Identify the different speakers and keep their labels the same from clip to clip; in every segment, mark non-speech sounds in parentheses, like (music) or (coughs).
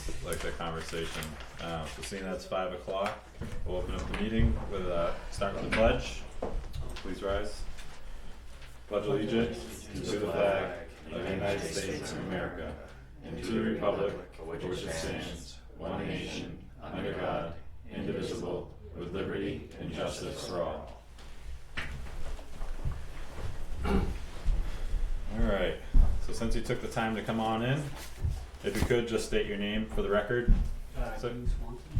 Speaker 1: the conversation. Um, so seeing that's five o'clock, we'll open up the meeting with, uh, start with the pledge. Please rise. Pledge allegiance to the flag of the United States of America and to the republic for which it stands, one nation, under God, indivisible, with liberty and justice for all. Alright, so since you took the time to come on in, if you could just state your name for the record,
Speaker 2: Uh,
Speaker 1: So-
Speaker 2: Dean Swanson.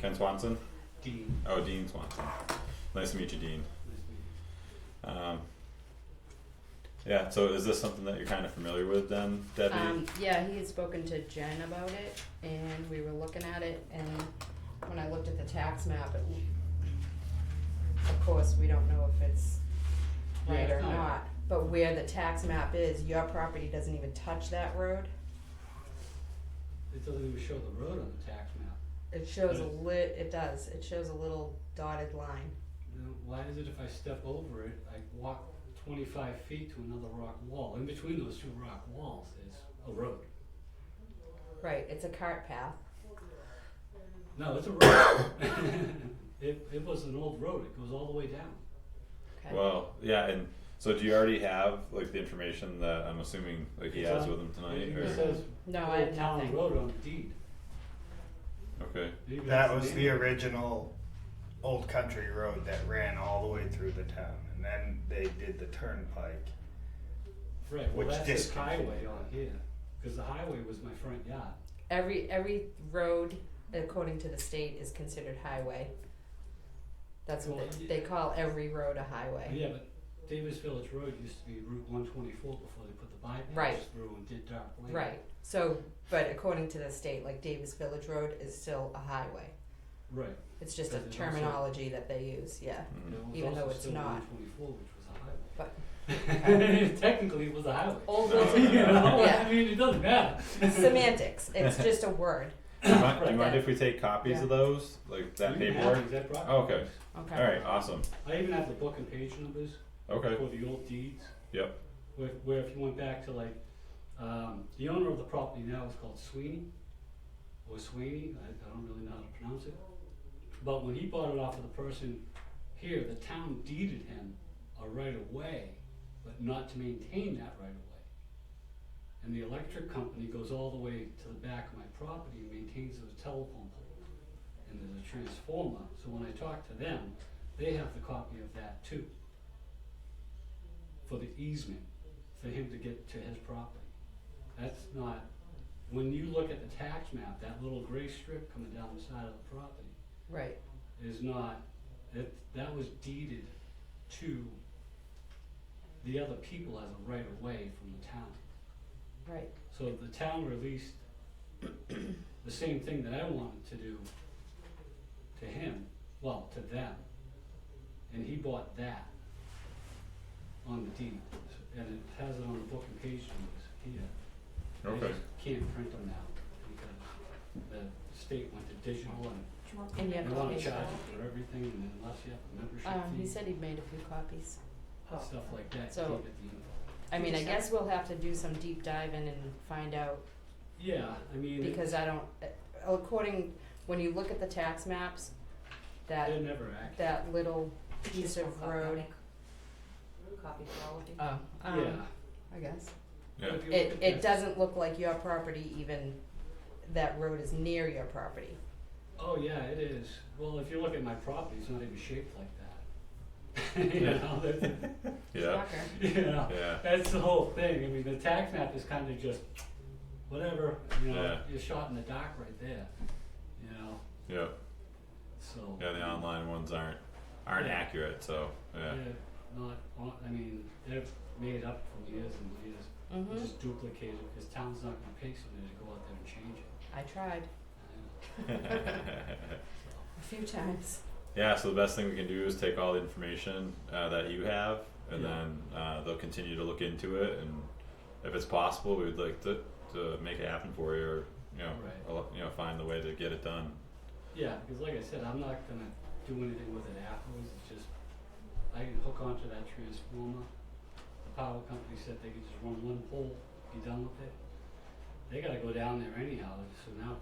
Speaker 1: Ken Swanson?
Speaker 2: Dean.
Speaker 1: Oh, Dean Swanson. Nice to meet you, Dean. Um, yeah, so is this something that you're kind of familiar with then, Debbie?
Speaker 3: Um, yeah, he had spoken to Jen about it, and we were looking at it, and when I looked at the tax map, it, of course, we don't know if it's right
Speaker 2: Yeah,
Speaker 3: or
Speaker 2: it's not.
Speaker 3: not, but where the tax map is, your property doesn't even touch that road.
Speaker 2: It doesn't even show the road on the tax map.
Speaker 3: It shows a
Speaker 2: Does it?
Speaker 3: lit, it does, it shows a little dotted line.
Speaker 2: Then Why is it if I step over it, I walk twenty-five feet to another rock wall? In between those two rock walls is a road.
Speaker 3: Right, it's a cart path.
Speaker 2: No, it's a road. It, it was an old road. It goes all the way down.
Speaker 3: Okay.
Speaker 1: Well, yeah, and so do you already have like the information that I'm assuming like he
Speaker 2: It's
Speaker 1: has
Speaker 2: on-
Speaker 1: with him tonight?
Speaker 2: It
Speaker 1: Or,
Speaker 2: even says
Speaker 3: No, I
Speaker 2: Old
Speaker 3: have
Speaker 2: Town
Speaker 3: nothing.
Speaker 2: Road on the deed.
Speaker 1: okay,
Speaker 2: It even
Speaker 4: That
Speaker 2: has
Speaker 4: was the original old country road that ran all the way through the town, and then they did the turnpike.
Speaker 2: Right, well,
Speaker 4: which
Speaker 2: that's this
Speaker 4: district?
Speaker 2: highway on here, cause the highway was my front yard.
Speaker 3: Every, every road, according to the state, is considered highway. That's what
Speaker 2: Well,
Speaker 3: they, they call every road a highway.
Speaker 2: Yeah, but Davis Village Road used to be Route one twenty-four before they put the bypass
Speaker 3: Right.
Speaker 2: through and did dark lane.
Speaker 3: Right, so, but according to the state, like Davis Village Road is still a highway.
Speaker 2: Right,
Speaker 3: It's just a
Speaker 2: Because it's also-
Speaker 3: terminology that they use, yeah.
Speaker 2: and
Speaker 1: mm,
Speaker 2: it
Speaker 3: Even
Speaker 2: was
Speaker 3: though
Speaker 2: also
Speaker 3: it's
Speaker 2: still
Speaker 3: not.
Speaker 2: one twenty-four, which was a highway. But. (laughs) Technically, it was a highway.
Speaker 3: Old
Speaker 1: No.
Speaker 2: (laughs)
Speaker 3: Wilton,
Speaker 2: You know,
Speaker 3: Oh. (laughs) Yeah.
Speaker 2: I mean, it doesn't matter. (laughs)
Speaker 3: semantics, it's just a word,
Speaker 1: (coughs) do you mind, do you
Speaker 3: Right.
Speaker 1: mind if we take copies of those, like
Speaker 2: (laughs)
Speaker 1: that
Speaker 2: You can have
Speaker 1: paperwork?
Speaker 2: the exact property
Speaker 1: Oh, okay.
Speaker 2: numbers.
Speaker 3: okay?
Speaker 1: All right, awesome.
Speaker 2: I even have the book and page numbers
Speaker 1: Okay,
Speaker 2: for the old deeds.
Speaker 1: Yep.
Speaker 2: Where, where if you went back to like, um, the owner of the property now is called Sweeney, or Sweeney, I, I don't really know how to pronounce it. But when he bought it off of the person here, the town deeded him a right of way, but not to maintain that right of way. And the electric company goes all the way to the back of my property and maintains those telephone poles. And there's a transformer, so when I talk to them, they have the copy of that too for the easement for him to get to his property. That's not, when you look at the tax map, that little gray strip coming down the side of the property
Speaker 3: Right,
Speaker 2: is not, that, that was deeded to the other people as a right of way from the town.
Speaker 3: right,
Speaker 2: So the town released the same thing that I wanted to do to him, well, to them. And he bought that on the deed, and it has it on the book and page numbers here. I
Speaker 1: okay.
Speaker 2: just Can't print them out because the state went to digital
Speaker 3: and you have
Speaker 2: and they
Speaker 3: to
Speaker 2: wanna
Speaker 3: make,
Speaker 2: charge you for everything and unless you have a
Speaker 3: um, he
Speaker 2: membership fee,
Speaker 3: said he'd made a few copies.
Speaker 2: stuff like that, you
Speaker 3: So-
Speaker 2: can't get the info.
Speaker 3: I mean, I guess we'll have to do some deep diving and find out,
Speaker 2: Yeah, I mean, it-
Speaker 3: because I don't, uh, according, when you look at the tax maps, that,
Speaker 2: they're never accurate.
Speaker 3: that little piece of road,
Speaker 5: Copy for all of you.
Speaker 3: oh,
Speaker 2: Yeah.
Speaker 3: um, I guess.
Speaker 1: Yeah. (laughs)
Speaker 2: If you look
Speaker 3: It,
Speaker 2: at
Speaker 3: it
Speaker 2: this-
Speaker 3: doesn't look like your property even, that road is near your property.
Speaker 2: Oh yeah, it is. Well, if you look at my property, it's not even shaped like that. (laughs) you know, that's,
Speaker 1: Yeah,
Speaker 3: Shocker.
Speaker 2: you know,
Speaker 1: (laughs) yeah,
Speaker 2: that's the whole thing. I mean, the tax map is kind of just whatever. You know,
Speaker 1: Yeah.
Speaker 2: you're shot in the dark right there. You know,
Speaker 1: yeah,
Speaker 2: so
Speaker 1: yeah, the online ones aren't, aren't
Speaker 2: Yeah.
Speaker 1: accurate, so, yeah,
Speaker 2: they're not. on- I mean, they're made up for years and years.
Speaker 3: Mm-hmm,
Speaker 2: Just duplicated because town's not going to pay somebody to go out there and change it.
Speaker 3: I tried
Speaker 1: (laughs)
Speaker 3: a few times.
Speaker 1: Yeah, so the best thing we can do is take all the information uh, that you have, and
Speaker 2: Yeah.
Speaker 1: then uh, they'll continue to look into it. And if it's possible, we would like to, to make it happen for you, or you know,
Speaker 2: Right.
Speaker 1: or, you know, find the way to get it done.
Speaker 2: Yeah, because like I said, I'm not gonna do anything with it afterwards, it's just, I can hook onto that transformer. The power company said they could just run one pole, be done with it. They gotta go down there anyhow, so now